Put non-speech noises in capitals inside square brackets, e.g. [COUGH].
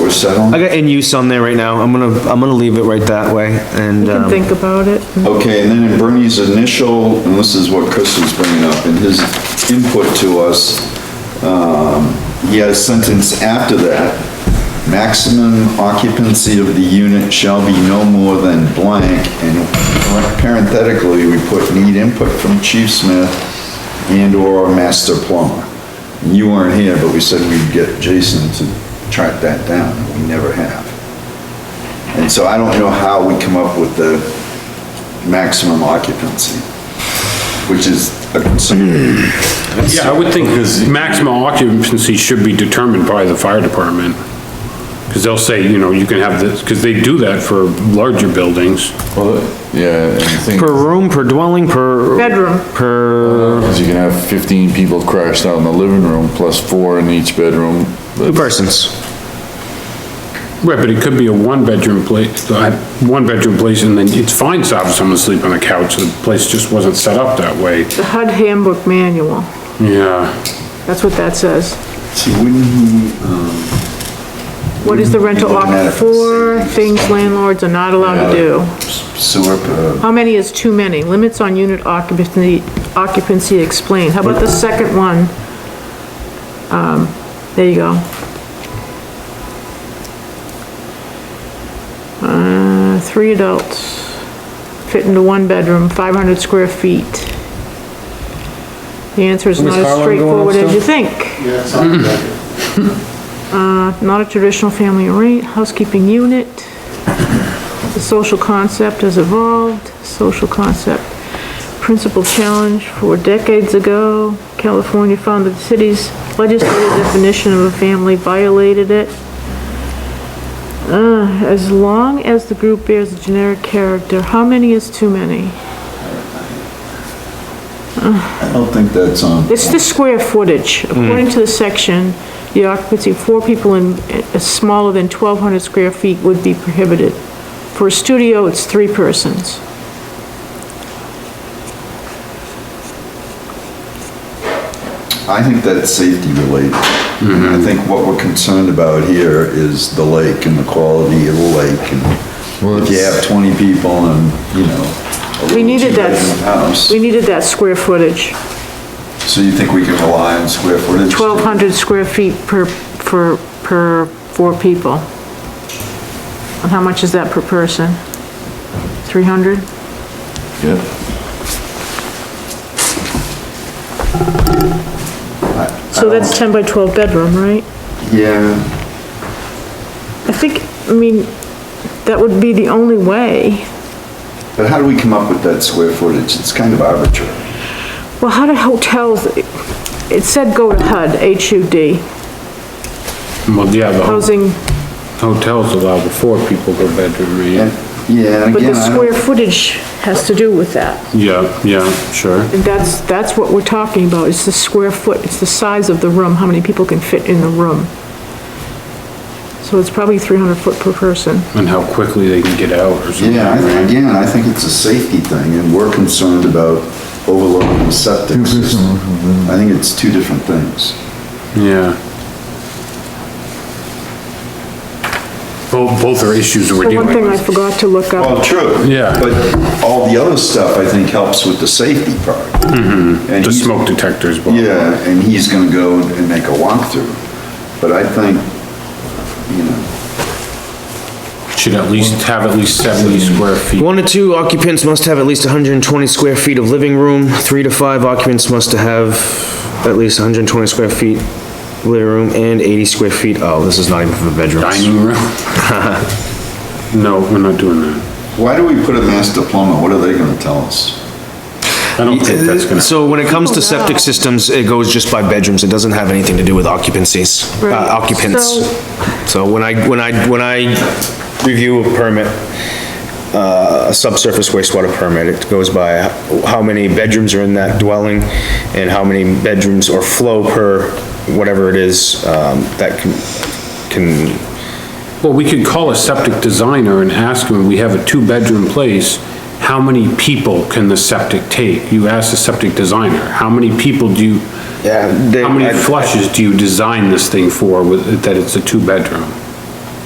we're settling? I got in use on there right now. I'm gonna, I'm gonna leave it right that way and, can um, think about it. Okay, and then in Bernie's initial, and this is what Chris was bringing up, in his input to us, um, he had a sentence after that, maximum occupancy of the unit shall be no more than blank, and parenthetically, we put need input from Chief Smith and/or master plumber. And You weren't here, but we said we'd get Jason to track that down, and we never have. And so I don't know how we come up with the maximum occupancy, which is a concern. Yeah, I would think maximum occupancy should be determined by the fire department. Because they'll say, you know, you can have this, because they do that for larger buildings. Well, yeah, and the thing, per room, per dwelling, per. Bedroom. Per, is you can have fifteen people crashed out in the living room, plus four in each bedroom. two persons. Right, but it could be a one-bedroom place, uh, one-bedroom place, and then it's fine to have someone sleep on the couch, the place just wasn't set up that way. The HUD handbook manual, Yeah, that's what that says. See, wouldn't he, um, What is the rental Doesn't matter offer if it's for, safe. things landlords are not allowed to do. sewer, uh, How many is too many? Limits on unit occupancy, occupancy explained. How about the second one? Um, there you go. Uh, three adults fit into one bedroom, five hundred square feet. The answer is not as straightforward as you think. Uh, not a traditional family arra- housekeeping unit. The social concept has evolved, social concept. Principal challenge four decades ago, California found that the city's legislative definition of a family violated it. Uh, as long as the group bears a generic character, how many is too many? I don't think that's on. It's the square footage. According to the section, the occupancy of four people in, uh, smaller than 1,200 square feet would be prohibited. For a studio, it's three persons. I think that's safety related. And I think what we're concerned about here is the lake and the quality of the lake and if you have twenty people and, you know, a We little needed that, two-bedroom house, we needed that square footage, so you think we can rely on square footage? 1,200 square feet per, per, per four people. And how much is that per person? 300? Yeah, So that's 10 by 12 bedroom, right? Yeah, I think, I mean, that would be the only way. but how do we come up with that square footage? It's kind of arbitrary. Well, how do hotels, it said go to HUD, H-U-D, well, yeah, the housing, hotels allow the four people per bedroom, And, right? yeah, and but the again, I don't square footage has to do with that. Yeah, yeah, sure. And that's, that's what we're talking about, it's the square foot, it's the size of the room, how many people can fit in the room. So it's probably 300 foot per person. And how quickly they can get out or something, Yeah, I- right? again, I think it's a safety thing, and we're concerned about overloading the septic system. I think it's two different things. Yeah. Both, both are issues that we're The dealing one with. thing I forgot to look up, Well, true. Yeah. But all the other stuff, I think, helps with the safety part. And Mm-hmm. The he's- smoke detectors, but. Yeah, and he's gonna go and make a walkthrough, but I think, you know, Should at least have at least seventy square feet. One to two occupants must have at least hundred and twenty square feet of living room. Three to five occupants must have at least hundred and twenty square feet living room and eighty square feet. Oh, this is not even for bedrooms. Dining room? [LAUGHS] No, we're not doing that. why do we put a master plumber? What are they gonna tell us? I don't think that's gonna, So when it comes to Oh, no. septic systems, it goes just by bedrooms, it doesn't have anything to do with occupancies, uh, Right. occupants. So- So when I, when I, when I review a permit, uh, a subsurface wastewater permit, it goes by how many bedrooms are in that dwelling and how many bedrooms or flow per whatever it is, um, that can, can, well, we could call a septic designer and ask him, we have a two-bedroom place, how many people can the septic take? You ask the septic designer, how many people do you, yeah. they- how I- many flushes do you design this thing for with, that it's a two-bedroom?